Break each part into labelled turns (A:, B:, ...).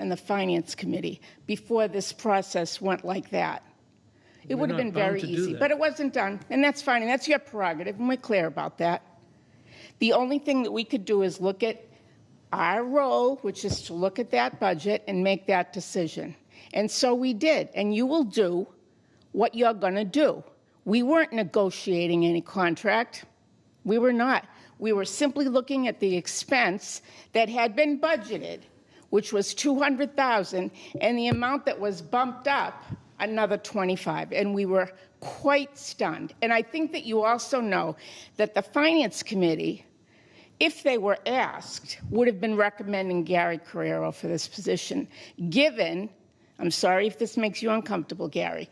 A: and the Finance Committee before this process went like that. It
B: We're
A: would have
B: not
A: been
B: bound
A: very
B: to do
A: easy,
B: that.
A: but it wasn't done, and that's fine, and that's your prerogative, and we're clear about that. The only thing that we could do is look at our role, which is to look at that budget and make that decision. And so we did, and you will do what you're going to do. We weren't negotiating any contract. We were not. We were simply looking at the expense that had been budgeted, which was 200,000, and the amount that was bumped up another 25, and we were quite stunned. And I think that you also know that the finance committee if they were asked, would have been recommending Gary Carrero for this position, given, I'm sorry if this makes you uncomfortable, Gary,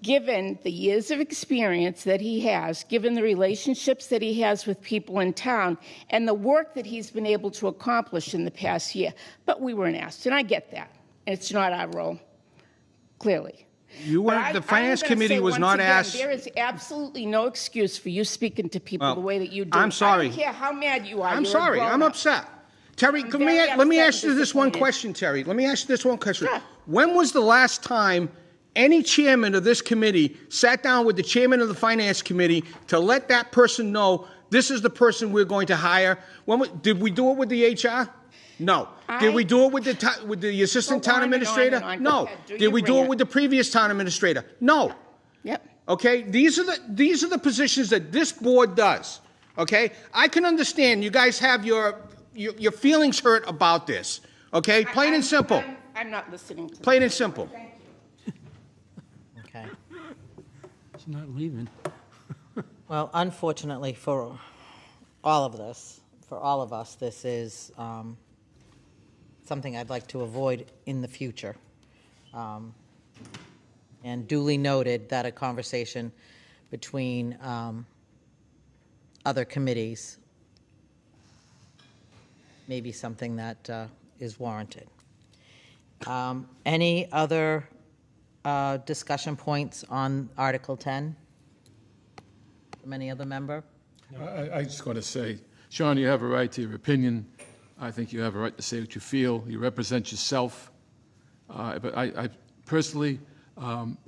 A: given the years of experience that he has, given the relationships that he has with people in town, and the work that he's been able to accomplish in the past year. But we weren't asked, and I get that. And it's not our role, clearly.
C: You
A: But
C: weren't,
A: I-
C: the
A: I'm
C: finance
A: gonna
C: committee
A: say
C: was
A: once
C: not
A: again,
C: asked,
A: There is absolutely no excuse for you speaking to people
C: Well,
A: the way that you do.
C: I'm
A: I don't
C: sorry.
A: care how mad you are.
C: I'm
A: You're a
C: sorry, I'm
A: grown-up.
C: upset. Terry,
A: I'm
C: let me,
A: very
C: let me
A: upset
C: ask
A: and
C: you this one
A: disappointed.
C: question, Terry. Let me ask you this one question.
A: Sure.
C: When was the last time any chairman of this committee sat down with the chairman of the finance committee to let that person know, this is the person we're going to hire? When, wa- did we do it with the HR? No. Did
A: I-
C: we do it with the, ti- with the assistant
A: Go on
C: town
A: and on and
C: administrator?
A: on. Go
C: No.
A: ahead, do
C: Did
A: your
C: we do it
A: rant.
C: with the previous town administrator? No.
A: Yep.
C: Okay, these are the these are the positions that this board does. Okay, I can understand you guys have your your, your feelings hurt about this. Okay, plain
A: I'm-
C: and simple.
A: I'm- I'm not listening to.
C: Plain and simple.
D: Okay.
B: She's not leaving.
D: Well, unfortunately for all of this, for all of us, this is um, something I'd like to avoid in the future. Um, And duly noted that a conversation between um, other committees may be something that uh, is warranted. Um, Any other uh, discussion points on Article 10 from any other member?
E: I- I, I just want to say, Sean, you have a right to your opinion. I think you have a right to say what you feel. You represent yourself. Uh, But I, I personally, um,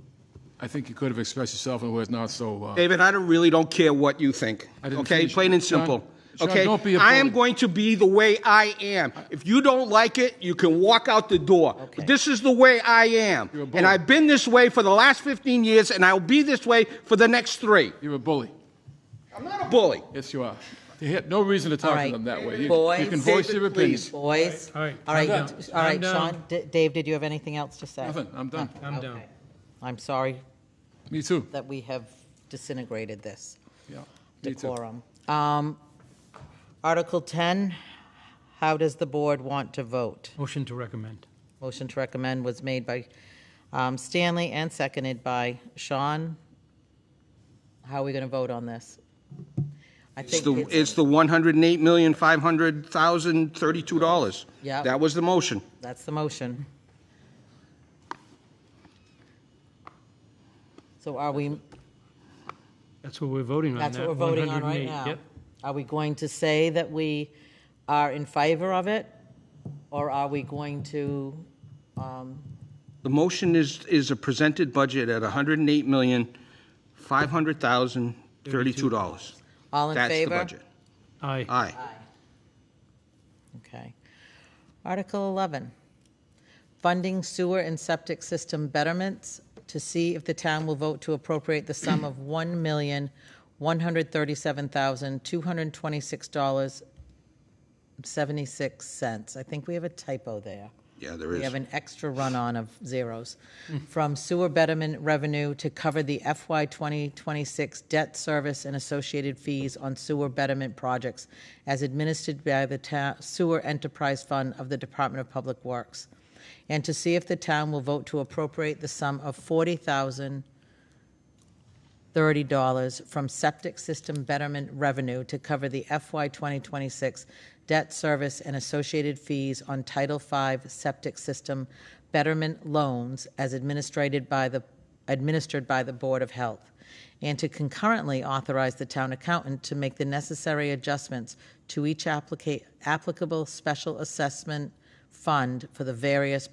E: I think you could have expressed yourself in words not so, uh,
C: David, I don't, really don't care what you think.
E: I didn't
C: okay,
E: finish.
C: plain and
E: Sean-
C: simple.
E: Sean,
C: okay,
E: don't be a
C: I am
E: bully.
C: going to be the way I am. If you don't like it, you can walk out the door. But This is the way I am,
E: You're a bully.
C: and I've been this way for the last 15 years, and I'll be this way for the next three.
E: you're a bully.
C: I'm not a bully.
E: Yes, you are. You had no reason to
D: All
E: talk to
D: right.
E: them that way. You-
D: Boys.
E: You can voice your
C: David,
E: opinion.
C: please.
D: Boys?
B: All right,
D: All
B: I'm
D: right,
B: down.
D: d- all
B: I'm
D: right,
B: down.
D: Sean, D- Dave, did you have anything else to say?
E: Nothing, I'm done.
B: I'm down.
D: Okay. I'm sorry
E: Me too.
D: that we have disintegrated this
E: Yeah, me too.
D: decorum. Um, Article 10, how does the board want to vote?
B: Motion to recommend.
D: Motion to recommend was made by um, Stanley and seconded by Sean. How are we going to vote on this? I
C: It's
D: think
C: the, it's the one hundred and eight million, five hundred thousand, thirty-two dollars.
D: Yeah.
C: That was the motion.
D: That's the motion. So are we,
B: That's what we're voting on.
D: that's what
B: that
D: we're voting on right
B: 108.
D: now?
B: Yep.
D: Are we going to say that we are in favor of it? Or are we going to, um,
C: The motion is, is a presented budget at hundred and eight million, five hundred thousand, thirty-two dollars.
D: all in
C: That's the
D: favor?
C: budget.
B: Aye.
C: Aye.
D: Okay. Article 11, funding sewer and septic system betterments to see if the town will vote to appropriate the sum of $1,137,226.76. I think we have a typo there.
C: Yeah, there
D: We
C: is. Hmm.
D: have an extra run-on of zeros. From sewer betterment revenue to cover the FY 2026 debt service and associated fees on sewer betterment projects as administered by the ta- Sewer Enterprise Fund of the Department of Public Works, and to see if the town will vote to appropriate the sum of $40,030 from septic system betterment revenue to cover the FY 2026 debt service and associated fees on Title V septic system betterment loans as administered by the, administered by the Board of Health, and to concurrently authorize the town accountant to make the necessary adjustments to each applica- applicable special assessment fund for the various